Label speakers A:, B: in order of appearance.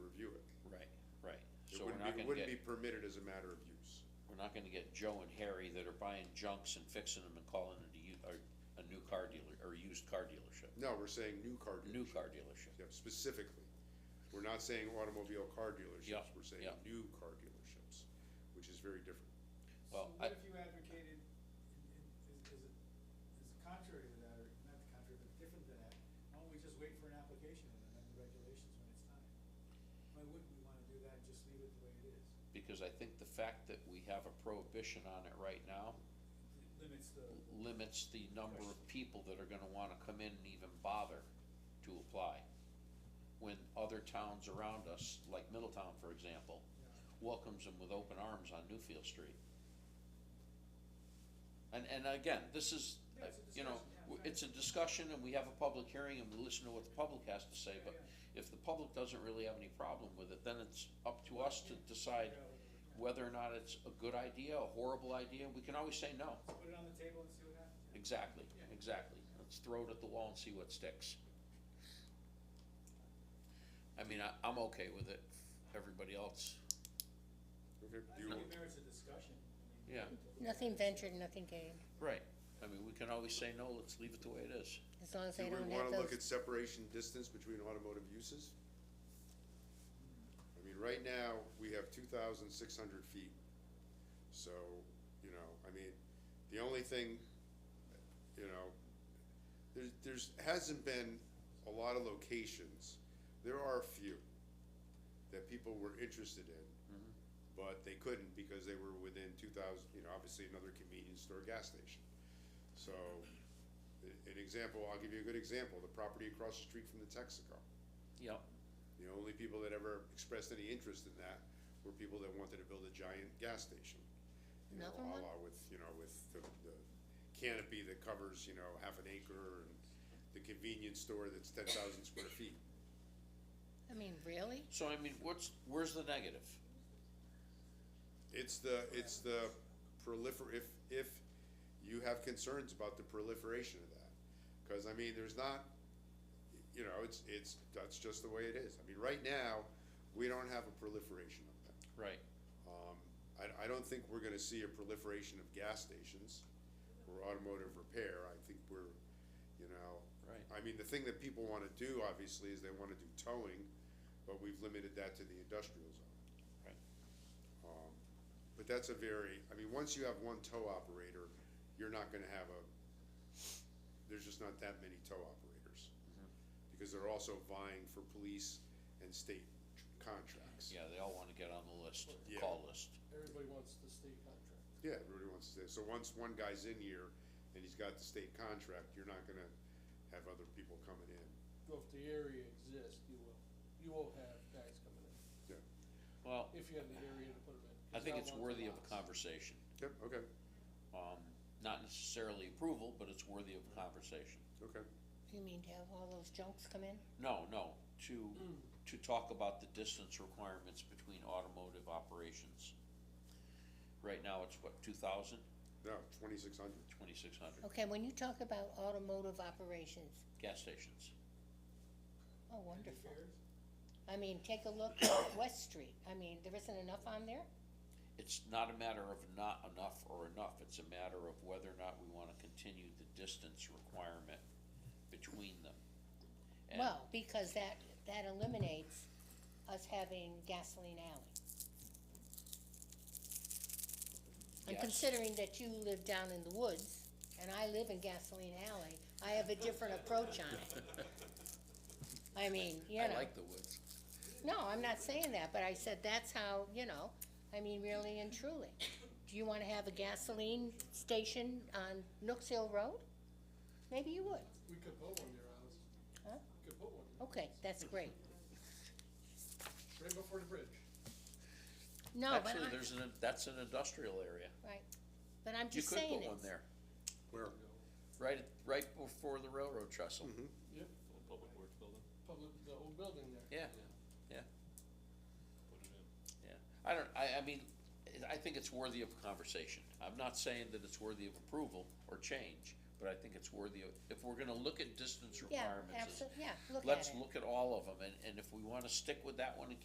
A: We're not
B: wouldn't be,
A: gonna
B: wouldn't be
A: get-
B: permitted as a matter of use.
A: We're not gonna get Joe and Harry that are buying junks and fixing them and calling it a, u- or a new car dealer, or used car dealership,
B: No, we're saying new car
A: new
B: dealerships,
A: car dealership.
B: yeah, specifically. We're not saying automobile car
A: Yeah,
B: dealerships, we're saying
A: yeah.
B: new car dealerships, which is very different.
A: Well,
C: So
A: I-
C: what if you advocated, in- in- is, is it, is it contrary to that, or not the contrary, but different than that? Why don't we just wait for an application and amend the regulations when it's time? Why wouldn't we wanna do that and just leave it the way it is?
A: Because I think the fact that we have a prohibition on it right now
C: It Limits the,
A: limits the number of people that are gonna wanna come in and even bother to apply. When other towns around us, like Middletown, for example,
C: you know,
A: welcomes them with open arms on Newfield Street. And, and again, this is, uh,
C: Yeah, it's a
A: you know,
C: discussion, yeah,
A: w-
C: right.
A: it's a discussion and we have a public hearing and we listen to what the public has to say, but if the public doesn't really have any problem with it, then it's up to us to decide
C: figure out what we're- yeah.
A: whether or not it's a good idea, a horrible idea, we can always say no.
C: Let's put it on the table and see what happens. yeah.
A: Exactly,
C: Yeah.
A: exactly. Let's throw it at the wall and see what sticks. I mean, I, I'm okay with it. Everybody else,
B: Okay,
C: I
B: do you
C: think
B: want,
C: it merits a discussion. I mean,
A: Yeah.
C: to look
D: Nothing
C: at it.
D: ventured, nothing gained,
A: right. I mean, we can always say no, let's leave it the way it is.
D: as long as
B: do
D: they
B: we
D: don't have
B: wanna look at
D: those.
B: separation distance between automotive uses? I mean, right now, we have two thousand six hundred feet. So, you know, I mean, the only thing, you know, there's, there's, hasn't been a lot of locations. There are a few that people were interested in, but they couldn't because they were within two thousand, you know, obviously another convenience store, gas station. So, a- an example, I'll give you a good example, the property across the street from the Texaco.
A: Yep,
B: The only people that ever expressed any interest in that were people that wanted to build a giant gas station. You know,
D: Another one?
B: a la with, you know, with the, the canopy that covers, you know, half an acre and the convenience store that's ten thousand square feet.
D: I mean, really?
A: so I mean, what's, where's the negative?
B: It's the, it's the prolifer, if, if you have concerns about the proliferation of that. Cause I mean, there's not, you know, it's, it's, that's just the way it is. I mean, right now, we don't have a proliferation of that.
A: Right,
B: Um, I, I don't think we're gonna see a proliferation of gas stations or automotive repair. I think we're, you know,
A: right.
B: I mean, the thing that people wanna do, obviously, is they wanna do towing, but we've limited that to the industrial zone.
A: Right.
B: Um, but that's a very, I mean, once you have one tow operator, you're not gonna have a, there's just not that many tow operators.
A: Mm-hmm.
B: Because they're also vying for police and state tr- contracts.
A: Yeah, they all wanna get on the list, the
B: Yeah.
A: call list.
E: Everybody wants the state contract.
B: Yeah, everybody wants to stay. So once one guy's in here and he's got the state contract, you're not gonna have other people coming in.
E: Well, if the area exists, you will, you will have guys coming in,
A: Well,
E: if you have the area to put them in. 'cause
A: I think
E: now
A: it's
E: lots
A: worthy of a
E: lots.
A: conversation.
B: Yep, okay,
A: Um, not necessarily approval, but it's worthy of a conversation.
B: okay.
D: You mean to have all those junks come in?
A: No, no, to, to talk about the distance requirements between automotive operations. Right now, it's what, 2,000, 2,600.
B: No, twenty-six hundred.
D: Okay, when you talk about automotive operations,
A: gas stations.
D: oh,
C: Any
D: wonderful.
C: fears?
D: I mean, take a look at West Street, I mean, there isn't enough on there?
A: It's not a matter of not enough or enough, it's a matter of whether or not we wanna continue the distance requirement between them. And-
D: Well, because that, that eliminates us having gasoline alley. And
A: Yes.
D: considering that you live down in the woods, and I live in gasoline alley, I have a different approach on it. I mean, you know.
A: the woods.
D: No, I'm not saying that, but I said that's how, you know, I mean, really and truly. Do you wanna have a gasoline station on Nooks Hill Road? Maybe you would.
E: We could put one there, Alice.
D: Huh? Oh.
E: We Could put one there,
D: Okay, that's great.
E: right before the bridge.
D: No, but
A: Actually,
D: I,
A: there's an, that's an industrial area.
D: right, but I'm
A: You
D: just
A: could
D: saying
A: put one
D: it's-
A: there,
B: Where?
A: right, at- right before the railroad trestle.
E: Yep,
F: Public Works building,
E: public, the old building there.
A: Yeah,
F: put it in.
A: yeah. I don't, I, I mean, I think it's worthy of conversation. I'm not saying that it's worthy of approval or change, but I think it's worthy of, if we're gonna look at distance
D: Yeah,
A: requirements,
D: absolutely, yeah, look at it.
A: let's look at all of them, and, and if we wanna stick with that one and